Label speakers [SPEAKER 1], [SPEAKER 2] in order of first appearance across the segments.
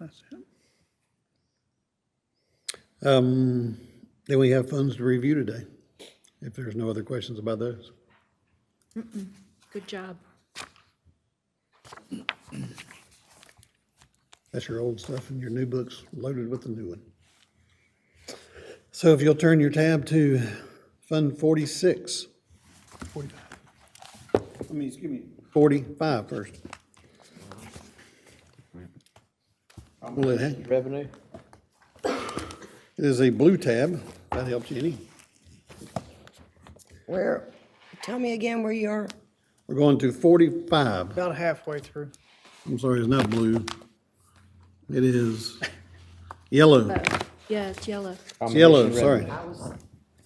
[SPEAKER 1] That's it.
[SPEAKER 2] Um, Then we have funds to review today, if there's no other questions about those.
[SPEAKER 3] Good job.
[SPEAKER 2] That's your old stuff and your new book's loaded with the new one. So if you'll turn your tab to Fund 46. 45. I mean, excuse me. 45 first. Well, it ha-
[SPEAKER 4] Revenue?
[SPEAKER 2] it is a blue tab. That helps you any.
[SPEAKER 5] Where, tell me again where you are.
[SPEAKER 2] We're going to 45.
[SPEAKER 1] About halfway through.
[SPEAKER 2] I'm sorry, it's not blue. It is yellow.
[SPEAKER 3] Oh, Yeah, it's yellow.
[SPEAKER 2] It's yellow, sorry.
[SPEAKER 5] Oh,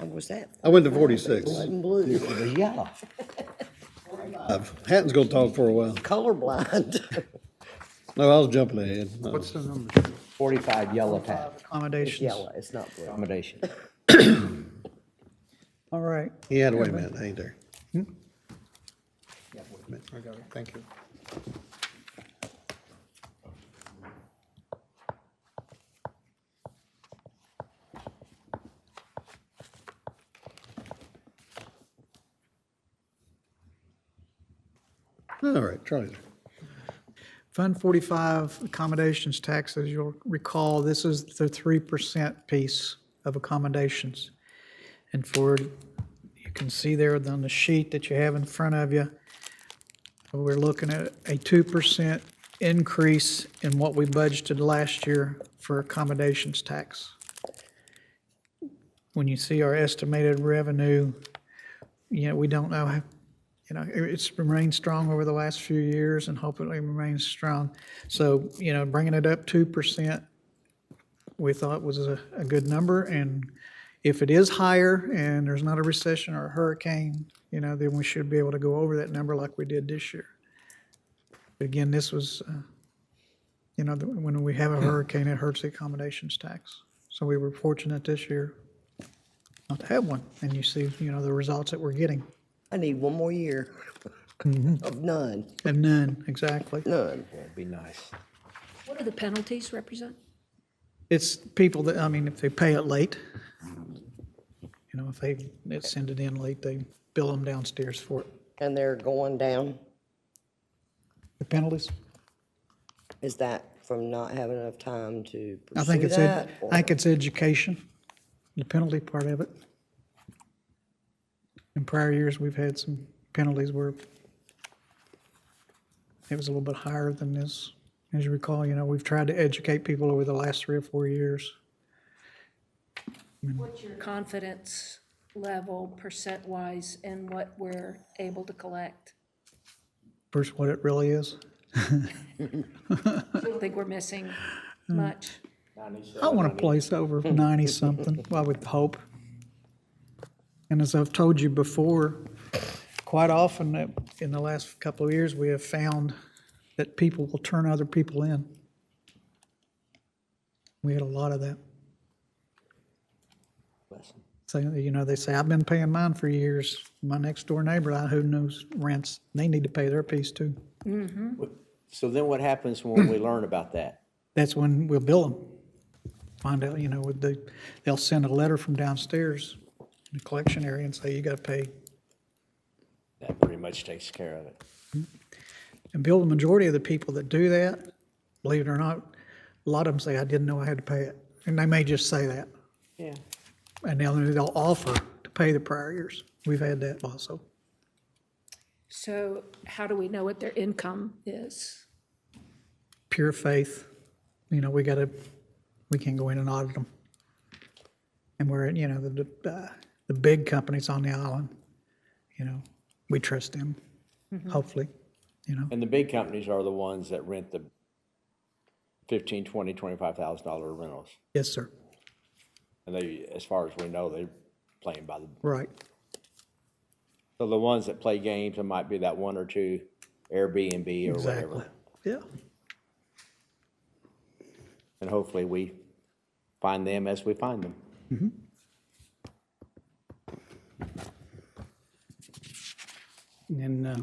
[SPEAKER 5] Was that
[SPEAKER 2] I went to 46.
[SPEAKER 5] in blue?
[SPEAKER 4] Yellow.
[SPEAKER 2] Hatton's gonna talk for a while.
[SPEAKER 5] Colorblind.
[SPEAKER 2] No, I was jumping ahead. No.
[SPEAKER 1] What's the number?
[SPEAKER 4] Forty-five yellow tab,
[SPEAKER 1] Accommodations.
[SPEAKER 5] Yellow, it's not blue.
[SPEAKER 4] accommodation.
[SPEAKER 1] All right.
[SPEAKER 2] He had, wait a minute, I ain't there.
[SPEAKER 1] I got it. Thank you.
[SPEAKER 2] All right, Charlie's there.
[SPEAKER 1] Fund 45 accommodations tax, as you'll recall, this is the 3% piece of accommodations. And for, you can see there on the sheet that you have in front of you, we're looking at a 2% increase in what we budgeted last year for accommodations tax. When you see our estimated revenue, you know, we don't know how, you know, it- it's remained strong over the last few years and hopefully remains strong. So, you know, bringing it up 2%, we thought was a, a good number. And if it is higher and there's not a recession or a hurricane, you know, then we should be able to go over that number like we did this year. But again, this was, uh, you know, the- when we have a hurricane, it hurts the accommodations tax. So we were fortunate this year not to have one. And you see, you know, the results that we're getting.
[SPEAKER 5] I need one more year
[SPEAKER 1] Mm-hmm.
[SPEAKER 5] of none,
[SPEAKER 1] And none, exactly.
[SPEAKER 5] none.
[SPEAKER 4] That'd be nice.
[SPEAKER 3] What do the penalties represent?
[SPEAKER 1] It's people that, I mean, if they pay it late, you know, if they they send it in late, they bill them downstairs for it.
[SPEAKER 5] And they're going down.
[SPEAKER 1] The penalties?
[SPEAKER 5] Is that from not having enough time to
[SPEAKER 1] I think
[SPEAKER 5] pursue
[SPEAKER 1] it's, ed-
[SPEAKER 5] that?
[SPEAKER 1] I think it's education, the penalty part of it. In prior years, we've had some penalties where it was a little bit higher than this. As you recall, you know, we've tried to educate people over the last three or four years.
[SPEAKER 3] What's your confidence level percent-wise in what we're able to collect?
[SPEAKER 1] Versus what it really is.
[SPEAKER 3] I don't think we're missing much.
[SPEAKER 1] I want to place over 90-something, I would hope. And as I've told you before, quite often uh, in the last couple of years, we have found that people will turn other people in. We had a lot of that. So, you know, they say, I've been paying mine for years. My next door neighbor, I- who knows rents, they need to pay their piece too.
[SPEAKER 4] So then what happens when we learn about that?
[SPEAKER 1] that's when we'll bill them. Find out, you know, would they, they'll send a letter from downstairs in the collection area and say, you gotta pay.
[SPEAKER 4] That pretty much takes care of it.
[SPEAKER 1] And bill the majority of the people that do that, believe it or not, a lot of them say, I didn't know I had to pay it. And they may just say that.
[SPEAKER 4] Yeah.
[SPEAKER 1] And now they'll offer to pay the prior years. We've had that also.
[SPEAKER 3] So how do we know what their income is?
[SPEAKER 1] Pure faith, you know, we gotta, we can go in and audit them. And we're, you know, the, the, uh, the big companies on the island, you know, we trust them, hopefully, you know.
[SPEAKER 4] And the big companies are the ones that rent the fifteen, twenty, twenty-five thousand dollar rentals.
[SPEAKER 1] Yes, sir.
[SPEAKER 4] And they, as far as we know, they're playing by the,
[SPEAKER 1] Right.
[SPEAKER 4] so the ones that play games, it might be that one or two Airbnb or
[SPEAKER 1] Exactly.
[SPEAKER 4] whatever.
[SPEAKER 1] Yeah.
[SPEAKER 4] And hopefully we find them as we find them. um,
[SPEAKER 1] And, uh,